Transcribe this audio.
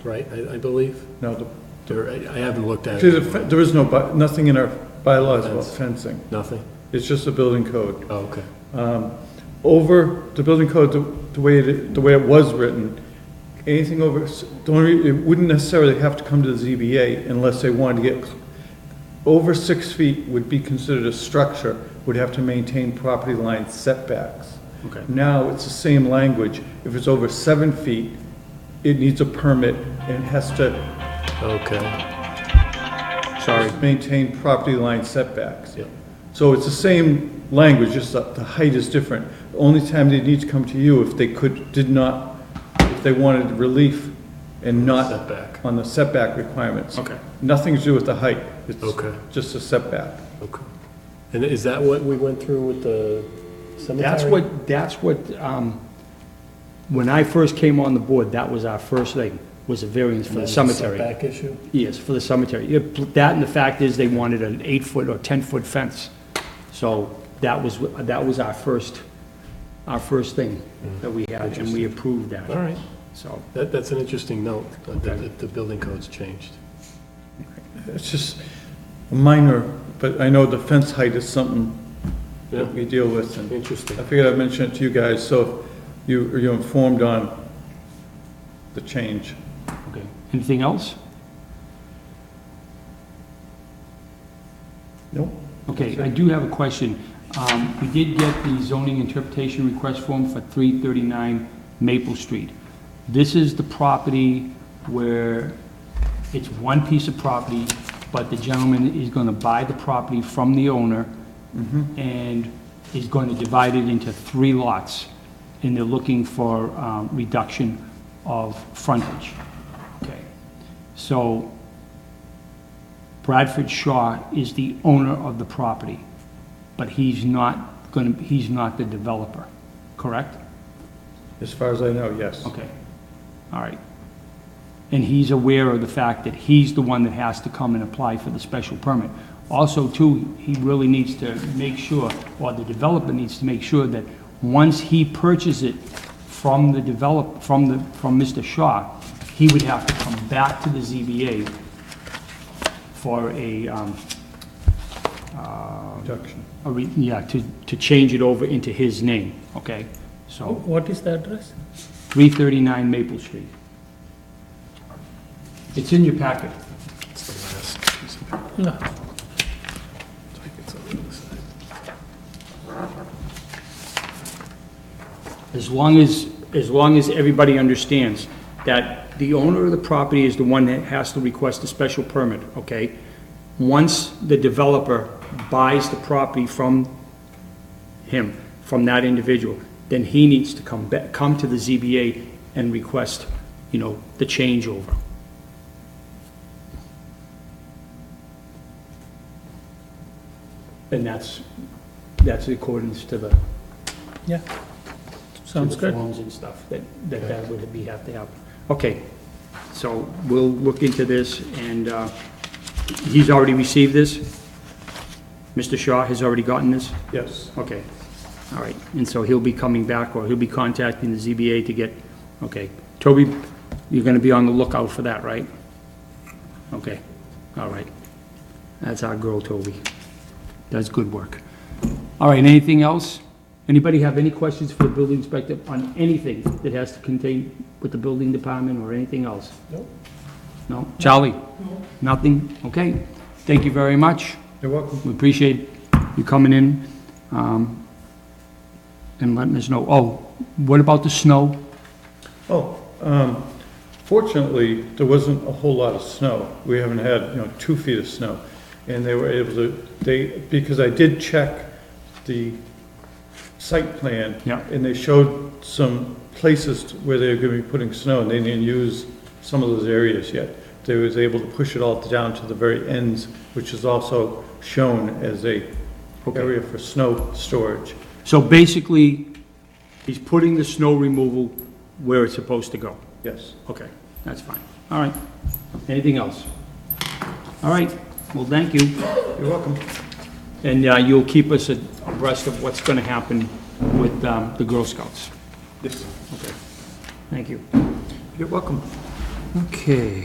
right, I I believe? No, the- Or I I haven't looked at see, it, the fe- there is no, bu- nothing in our bylaws about fencing. nothing? It's just a building code. Oh, okay, Over, the building code, the the way, it- the way it was written, anything over, s- the only, it wouldn't necessarily have to come to the ZBA unless they wanted to get, cl- over six feet would be considered a structure, would have to maintain property line setbacks. okay. Now, it's the same language. If it's over seven feet, it needs a permit and has to Okay, Sorry. Maintain property line setbacks. Yep. So it's the same language, just that the height is different. The Only time they need to come to you if they could, did not, if they wanted relief and not setback, on the setback requirements. Okay. Nothing to do with the height. It's Okay. Just a setback. okay. And is that what we went through with the cemetery? That's what, that's what, um, when I first came on the board, that was our first thing, was a variance for And the then cemetery. Setback issue? Yes, for the cemetery. Yeah, pl- That and the fact is, they wanted an eight-foot or 10-foot fence. So that was, wh- that was our first, our first thing that we had, and we approved Mm-hmm. All that, right, so. that, that's an interesting note, that the, that the building code's changed. It's just a minor, but I know the fence height is something Yeah, that we deal with and interesting. I figured I'd mention it to you guys, so if you, you're informed on the change. Okay. Anything else? Nope. Okay, I do have a question. Um, We did get the zoning interpretation request form for 339 Maple Street. This is the property where it's one piece of property, but the gentleman is going to buy the property from the owner and is going to divide it into three lots, and they're looking for um, reduction of frontage. Okay. So Bradford Shaw is the owner of the property, but he's not going to, he's not the developer, correct? As far as I know, yes. Okay, all right. And he's aware of the fact that he's the one that has to come and apply for the special permit. Also, too, he really needs to make sure, or the developer needs to make sure that once he purchases it from the develop, from the, from Mr. Shaw, he would have to come back to the ZBA for a, um, Reduction. a re- yeah, to, to change it over into his name, okay? So, What is the address? 339 Maple Street. It's in your packet. It's the last piece of paper. No. It's like it's on the other side. As long as, as long as everybody understands that the owner of the property is the one that has to request a special permit, okay? Once the developer buys the property from him, from that individual, then he needs to come back, come to the ZBA and request, you know, the changeover. And that's, that's in accordance to the Yeah. Sounds to the good. Forms and stuff, that, that that would be, have to happen. Okay, so we'll look into this, and uh, he's already received this? Mr. Shaw has already gotten this? Yes. Okay, all right, and so he'll be coming back, or he'll be contacting the ZBA to get, okay. Toby, you're gonna be on the lookout for that, right? Okay, all right. That's our girl, Toby. Does good work. All right, anything else? Anybody have any questions for the building inspector on anything that has to contain with the building department or anything else? Nope. No? Charlie? No. Nothing? Okay, thank you very much. You're welcome. We appreciate you coming in, um, and letting us know. Oh, what about the snow? Oh, um, fortunately, there wasn't a whole lot of snow. We haven't had, you know, two feet of snow. And they were able to, they, because I did check the site plan. Yeah. And they showed some places where they were gonna be putting snow, and they didn't use some of those areas yet. They was able to push it all down to the very ends, which is also shown as a Okay. area for snow storage. So basically, he's putting the snow removal where it's supposed to go. Yes. Okay, that's fine. All right. Anything else? All right, well, thank you. You're welcome. And uh, you'll keep us abreast of what's going to happen with um, the Girl Scouts. Yes. Okay, thank you. You're welcome. Okay.